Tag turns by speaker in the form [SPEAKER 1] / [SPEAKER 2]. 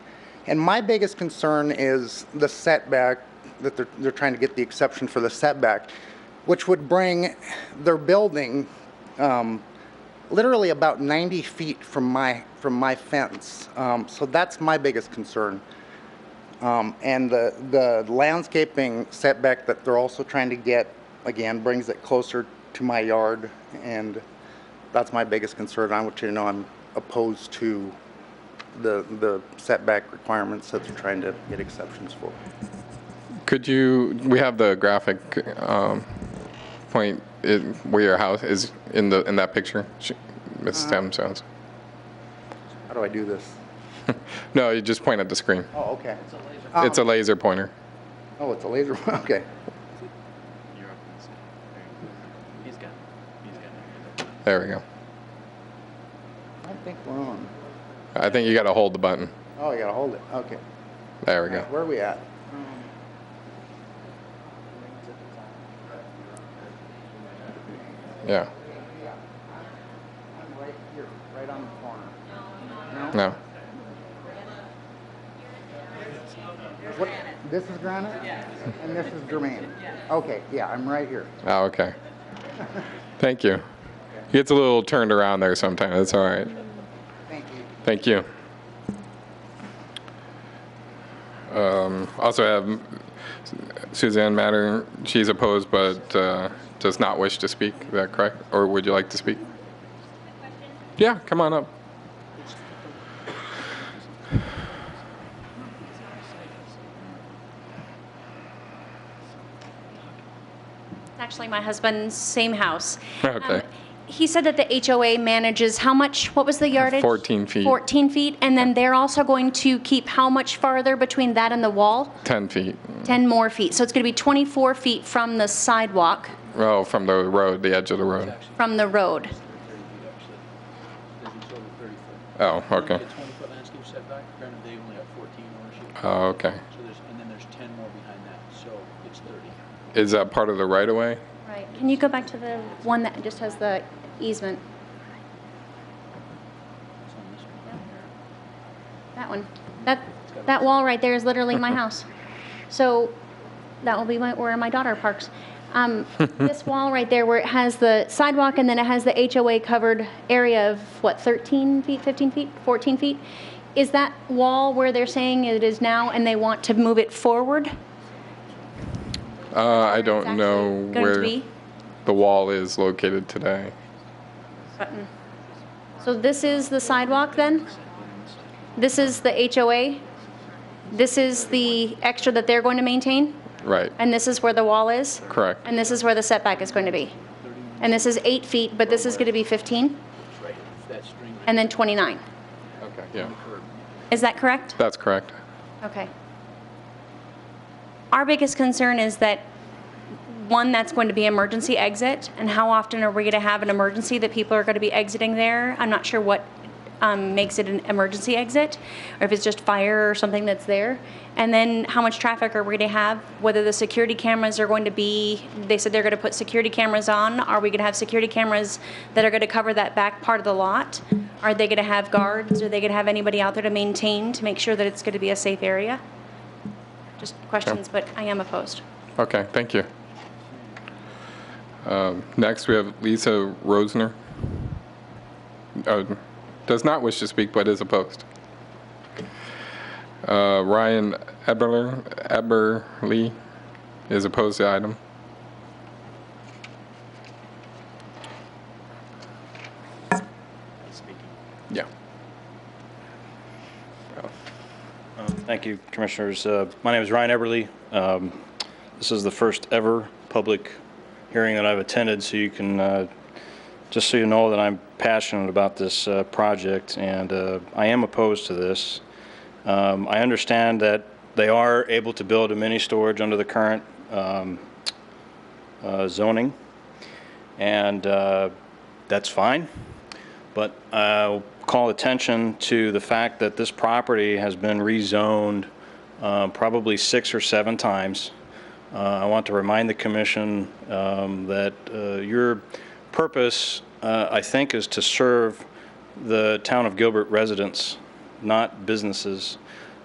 [SPEAKER 1] And my biggest concern is the setback, that they're, they're trying to get the exception for the setback, which would bring their building um, literally about 90 feet from my, from my fence. Um, So that's my biggest concern. Um, And the, the landscaping setback that they're also trying to get, again, brings it closer to my yard, and that's my biggest concern. I want you to know I'm opposed to the, the setback requirements that they're trying to get exceptions for.
[SPEAKER 2] Could you, we have the graphic um, point i- where your house is in the, in that picture, Sh- Ms. Stem sounds.
[SPEAKER 1] How do I do this?
[SPEAKER 2] No, you just point at the screen.
[SPEAKER 1] Oh, okay.
[SPEAKER 2] It's a laser pointer.
[SPEAKER 1] Oh, it's a laser, okay.
[SPEAKER 3] He's got. He's got.
[SPEAKER 2] There we go.
[SPEAKER 1] I think we're on.
[SPEAKER 2] I think you got to hold the button.
[SPEAKER 1] Oh, you gotta hold it, okay.
[SPEAKER 2] There we go.
[SPEAKER 1] Where are we at?
[SPEAKER 2] Yeah.
[SPEAKER 1] I'm right here, right on the corner.
[SPEAKER 2] No.
[SPEAKER 1] What, this is granite? And this is germane? Okay, yeah, I'm right here.
[SPEAKER 2] Oh, okay. Thank you. He gets a little turned around there sometimes. It's all right.
[SPEAKER 1] Thank you.
[SPEAKER 2] Thank you. Um, Also have Suzanne Matter, she's opposed but uh, does not wish to speak, is that correct? Or would you like to speak? Yeah, come on up.
[SPEAKER 4] It's actually my husband's same house.
[SPEAKER 2] Okay.
[SPEAKER 4] Um, He said that the HOA manages how much, what was the yardage?
[SPEAKER 2] 14 Uh, feet.
[SPEAKER 4] 14 feet, and then they're also going to keep how much farther between that and the wall?
[SPEAKER 2] 10 feet,
[SPEAKER 4] 10 more feet. So it's going to be 24 feet from the sidewalk,
[SPEAKER 2] oh, from the road, the edge of the road.
[SPEAKER 4] from the road.
[SPEAKER 3] Doesn't show the thirty foot.
[SPEAKER 2] Oh, okay.
[SPEAKER 3] Get twenty foot landscape setback, granted they only have fourteen ownership,
[SPEAKER 2] Oh, okay.
[SPEAKER 3] so there's, and then there's ten more behind that, so it's thirty.
[SPEAKER 2] Is that part of the right-of-way?
[SPEAKER 4] Right. Can you go back to the one that just has the easement?
[SPEAKER 3] It's on this one here.
[SPEAKER 4] That one. That, that wall right there is literally my house. So that will be my, where my daughter parks. Um, this wall right there where it has the sidewalk and then it has the HOA covered area of what, 13 feet, 15 feet, 14 feet? Is that wall where they're saying it is now and they want to move it forward?
[SPEAKER 2] Uh, I
[SPEAKER 4] It's
[SPEAKER 2] don't
[SPEAKER 4] actually
[SPEAKER 2] know
[SPEAKER 4] going to
[SPEAKER 2] where
[SPEAKER 4] be?
[SPEAKER 2] the wall is located today.
[SPEAKER 4] Button. So this is the sidewalk then? This is the HOA? This is the extra that they're going to maintain?
[SPEAKER 2] Right,
[SPEAKER 4] And this is where the wall is?
[SPEAKER 2] correct.
[SPEAKER 4] And this is where the setback is going to be. And this is eight feet, but this is going to be 15,
[SPEAKER 3] It's right, it's that string right
[SPEAKER 4] and then 29.
[SPEAKER 2] Okay. Yeah,
[SPEAKER 3] curb.
[SPEAKER 4] Is that correct?
[SPEAKER 2] that's correct.
[SPEAKER 4] Okay. Our biggest concern is that, one, that's going to be emergency exit, and how often are we going to have an emergency that people are going to be exiting there? I'm not sure what um, makes it an emergency exit, or if it's just fire or something that's there. And then how much traffic are we going to have? Whether the security cameras are going to be, they said they're going to put security cameras on. Are we going to have security cameras that are going to cover that back part of the lot? Are they going to have guards? Are they going to have anybody out there to maintain, to make sure that it's going to be a safe area? Just questions, but I am opposed.
[SPEAKER 2] Okay, thank you. Um, Next, we have Lisa Rosner. Uh, Does not wish to speak, but is opposed. Uh, Ryan Eberler, Eberly is opposed to the item. Yeah.
[SPEAKER 5] Thank you, Commissioners. Uh, My name is Ryan Eberly. Um, This is the first-ever public hearing that I've attended, so you can, uh, just so you know that I'm passionate about this uh, project, and uh, I am opposed to this. Um, I understand that they are able to build a mini storage under the current um, uh, zoning, and uh, that's fine. But I'll call attention to the fact that this property has been rezoned uh, probably six or seven times. Uh, I want to remind the commission um, that uh, your purpose, uh, I think, is to serve the town of Gilbert residents, not businesses.